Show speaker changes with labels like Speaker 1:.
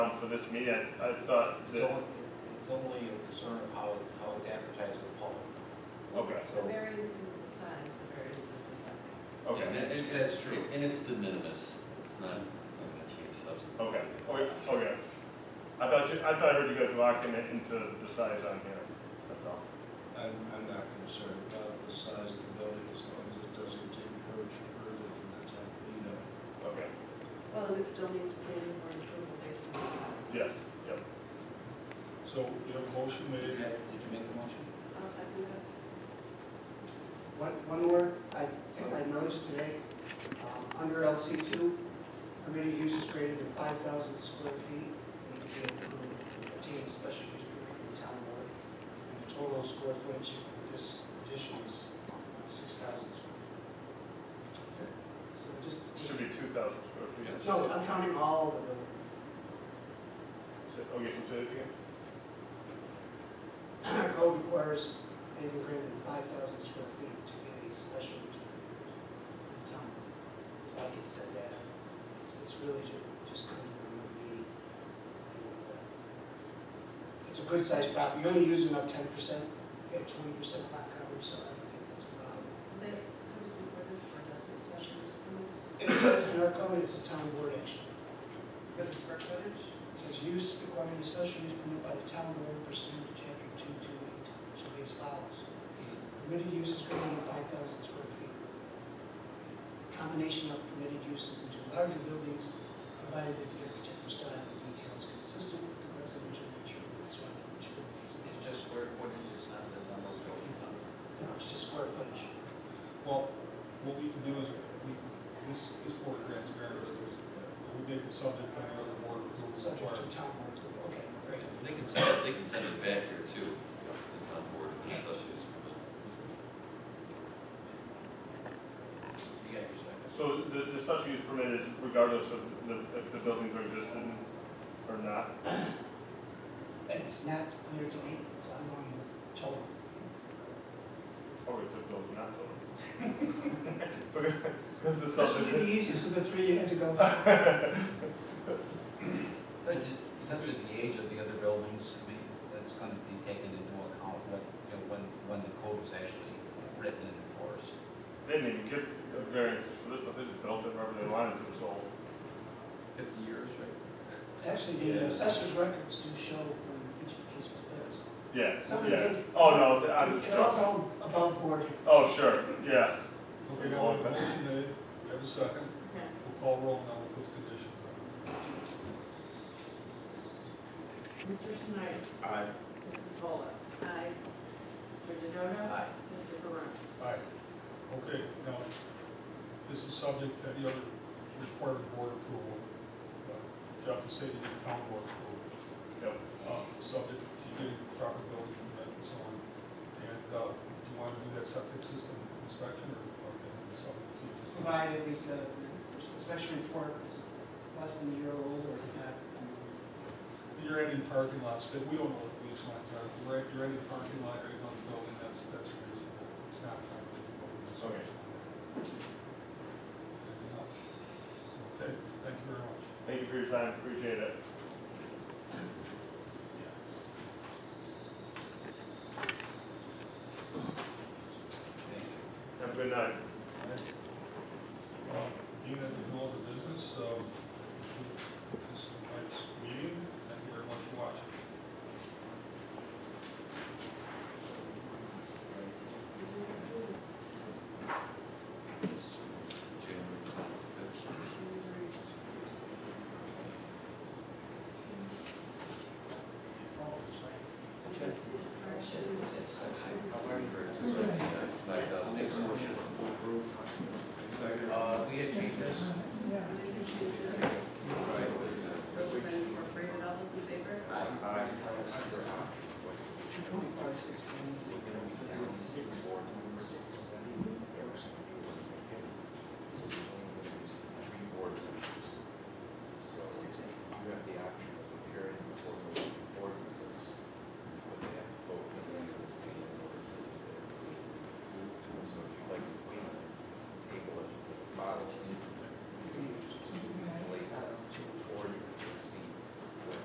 Speaker 1: um, this meeting, I, I thought
Speaker 2: It's
Speaker 1: that,
Speaker 2: only, it's only a concern of how, how it's advertised to the public.
Speaker 1: okay,
Speaker 3: The variance is the size, the variance is the setback.
Speaker 1: okay,
Speaker 4: And- and-
Speaker 2: That's true.
Speaker 4: And it's de minimis, it's not, it's not gonna change substance.
Speaker 1: okay, okay, okay. I thought you, I thought I heard you guys locking it into the size on here, that's all.
Speaker 2: I'm, I'm not concerned about the size of the building as long as it doesn't encroach further than the ten feet of.
Speaker 1: Okay,
Speaker 3: Well, and it still needs planning board approval based on the size.
Speaker 1: yes, yep.
Speaker 5: So we have a motion
Speaker 2: Did
Speaker 5: made,
Speaker 2: you make the motion?
Speaker 3: I'll second that.
Speaker 6: One, one more, I think I noticed today, um, under LC two, permitted uses greater than five thousand square feet need to be approved to obtain a special use permit from the town board. And the total square footage of this addition is six thousand square feet. That's it. So we just,
Speaker 1: It Should be two thousand square feet.
Speaker 6: no, I'm counting all the buildings.
Speaker 1: So- Okay, so say this again?
Speaker 6: Our code requires anything greater than five thousand square feet to get a special use permit from the town. So I can set that up. It's, it's really ju- just coming to another meeting. And, uh, It's a good sized property. You're only using up ten percent, you have twenty percent lot coverage, so I don't think that's a problem.
Speaker 3: That comes before this board, doesn't it, special use permits?
Speaker 6: It says in our code, it's a town board action.
Speaker 3: For the square footage?
Speaker 6: It says use requiring a special use permit by the town board pursuant to chapter two two eight, should be as follows.
Speaker 2: Hmm.
Speaker 6: Permitted uses greater than five thousand square feet. The Combination of permitted uses into larger buildings, provided that the architectural style and detail is consistent with the residential nature of the surrounding buildings.
Speaker 2: It's just square footage, it's not the number of buildings.
Speaker 6: No, it's just square footage.
Speaker 5: well, what we can do is, we, this, this board grants variances, we make it subject to any other board approval
Speaker 6: Subject to
Speaker 5: requirement.
Speaker 6: town board approval. Okay, great.
Speaker 4: They can send it, they can send it back here too, the town board, for the special use permit.
Speaker 2: You got your second.
Speaker 1: So the, the special use permit is regardless of the, if the buildings are existing or not?
Speaker 6: It's not clear to me, so I'm going with total.
Speaker 1: Or if the Oh, building not building? Because the
Speaker 6: This would be the
Speaker 1: subdivision.
Speaker 6: easiest of the three you had to go with.
Speaker 2: But ju- Because of the age of the other buildings, I mean, that's going to be taken into account when, you know, when, when the code was actually written and enforced.
Speaker 1: They didn't even get variances for this stuff, they just built it wherever they wanted to, so.
Speaker 2: Fifty years, right?
Speaker 6: Actually, the assessor's records do show when each piece was built.
Speaker 1: Yeah,
Speaker 6: Somebody
Speaker 1: yeah.
Speaker 6: did-
Speaker 1: Oh, no, th- I was
Speaker 6: It also above board.
Speaker 1: Oh, sure, yeah.
Speaker 5: Okay, now we have a motion made, we have a second, we'll call roll now with those conditions.
Speaker 7: Mr. Snyder?
Speaker 2: Aye.
Speaker 7: Mrs. Bola?
Speaker 3: Aye.
Speaker 7: Mr. Denoda?
Speaker 2: Aye.
Speaker 7: Mr. Barone?
Speaker 5: Aye. Okay, now, this is subject to any other required board approval. Uh, Jeff is saying the town board approval.
Speaker 1: Yep.
Speaker 5: Uh, subject to getting proper building permit and so on. And, uh, do you want to do that septic system inspection or, or is it subject to just?
Speaker 6: Provide at least a inspection report that's less than a year old or if not. I mean,
Speaker 5: You're adding parking lots, but we don't know what these lines are. You're add- You're adding parking lot right on the building, that's, that's reasonable. It's not.
Speaker 1: Okay.
Speaker 5: Anything else? Okay, thank you very much.
Speaker 1: Thank you for your time, appreciate it.
Speaker 2: Thank you.
Speaker 1: Have a good night.
Speaker 5: Um, Being at the middle of the business, um, this is tonight's meeting. Thank you very much for watching.
Speaker 3: We do have minutes.
Speaker 4: January fifth.
Speaker 6: Oh, it's right.
Speaker 3: That's the corrections.
Speaker 4: Like, uh, make a motion to approve. Uh, we had changes.
Speaker 3: Those have been incorporated, all those in favor?
Speaker 6: Twenty-five sixteen, six, six.